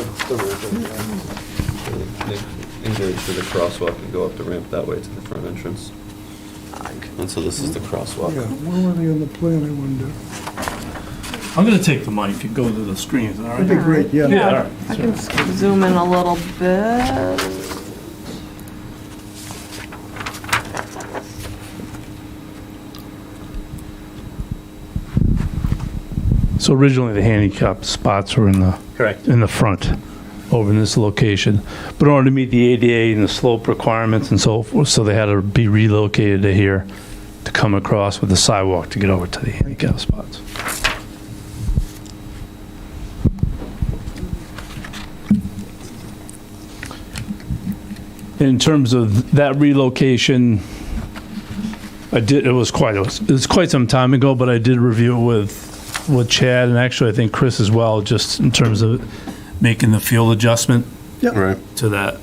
the ramp and the- they Engage to the crosswalk and go up the ramp that way to the front entrance. And so this is the crosswalk. Yeah, where were they on the plan, I wonder? I'm gonna take the mic and go to the screens, all That'd be right? great, yeah. Yeah, all right. I can s- zoom in a little bit. So originally, the handicap spots were in the. Correct. In the front, over in this location. But in order to meet the ADA and the slope requirements and so forth, so they had to be relocated to here to come across with the sidewalk to get over to the handicap spots. In terms of that relocation, I did, it was quite, it was- it was quite some time ago, but I did review it with with Chad and actually I think Chris as well, just in terms of making the fuel adjustment Right. to that.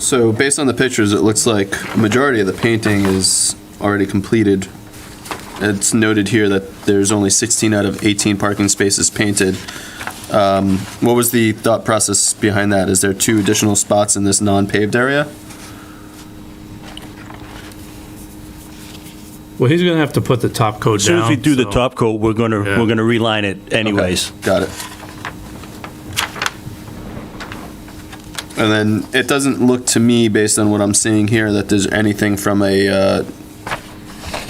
So based on the pictures, it looks like a majority of the painting is already completed. It's noted here that there's only 16 out of 18 parking spaces painted. Um, What was the thought process behind that? Is there two additional spots in this non-paved area? Well, he's gonna have to put the top coat down. Soon as we do the so- top coat, we're gonna, Yeah. we're gonna reline it anyways. Got it. And then it doesn't look to me, based on what I'm seeing here, that there's anything from a uh,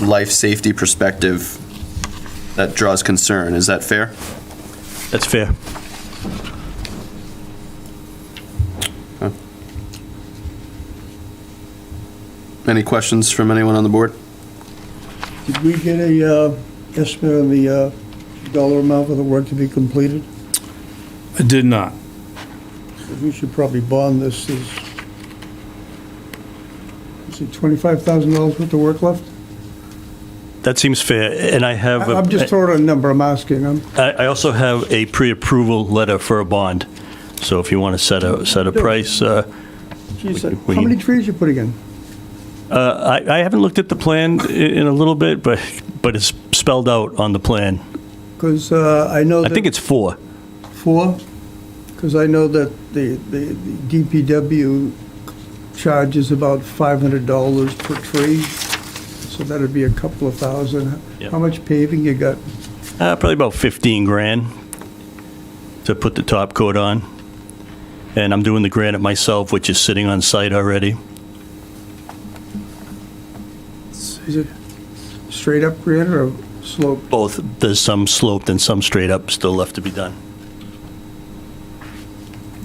life safety perspective that draws concern. Is that fair? That's fair. Any questions from anyone on the board? Did we get a uh, estimate on the uh, dollar amount of the work to be completed? I did not. We should probably bond this as, is it $25,000 worth of work left? That seems fair, and I have, I- I'm just a- throwing out a number, I'm asking, I'm, I I also have a pre-approval letter for a bond. So if you want to set a, set a price, uh, geez, We- uh, we- how many trees you putting in? uh, I I haven't looked at the plan i- in a little bit, but, but it's spelled out on the plan. Because uh, I know I that. think it's four. Four? Because I know that the, the the DPW charges about five hundred dollars per tree, so that'd be a couple of thousand. Yeah. How much paving you got? Uh, Probably about 15 grand to put the top coat on. And I'm doing the granite myself, which is sitting on site already. Is it straight up granite or slope? Both, there's some sloped and some straight up still left to be done.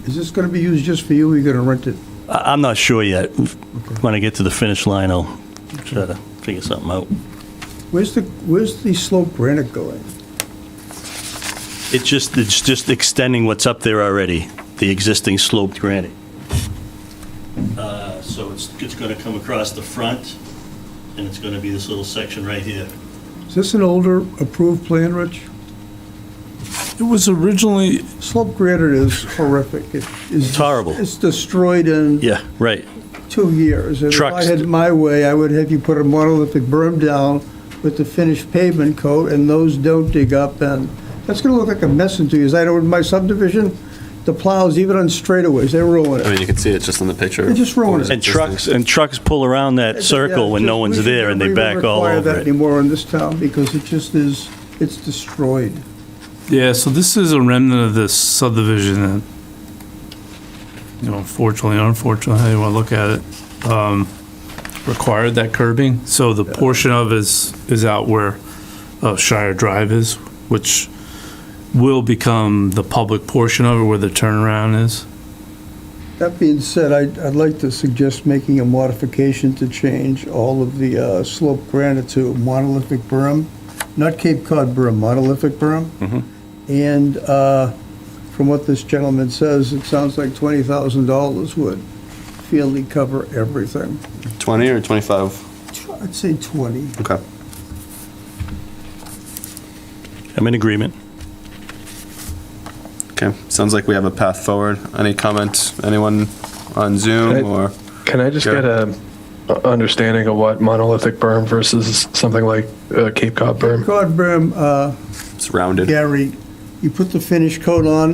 Is this gonna be used just for you, or you gonna rent it? I- I'm not sure yet. When I get to the finish line, I'll try to figure something out. Where's the, where's the slope granite going? It's just, it's just extending what's up there already, the existing sloped granite. Uh, So it's, it's going to come across the front, and it's going to be this little section right here. Is this an older approved plan, Rich? It was originally, Slope granite is horrific. It is- It's horrible. It's destroyed in Yeah, right. two years. And Trucks. If I had my way, I would have you put a monolithic berm down with the finished pavement coat, and those don't dig up, and that's gonna look like a mess in two years. I know in my subdivision, the plows, even on straightaways, they ruin I it. mean, you can see it just on the picture. They just ruined it. And trucks, and trucks pull around that circle when no one's there, and they back all We should never even require over that it. anymore in this town, because it just is, it's destroyed. yeah, so this is a remnant of this subdivision that, you know, unfortunately, unfortunately, how you wanna look at it, um, required that curbing. So the portion of is, is out where uh, Shire Drive is, which will become the public portion of it where the turnaround is. That being said, I'd, I'd like to suggest making a modification to change all of the uh, slope granite to monolithic berm, not Cape Cod berm, monolithic berm. And uh, from what this gentleman says, it sounds like $20,000 would fairly cover everything. 20 or 25? Tw- I'd say 20. Okay. I'm in agreement. Okay, sounds like we have a path forward. Any comment, anyone on Zoom Right. or? Can I just Sure. get a a understanding of what monolithic berm versus something like uh, Cape Cod berm? Cape Cod berm, uh, It's rounded. Gary, you put the finish coat on,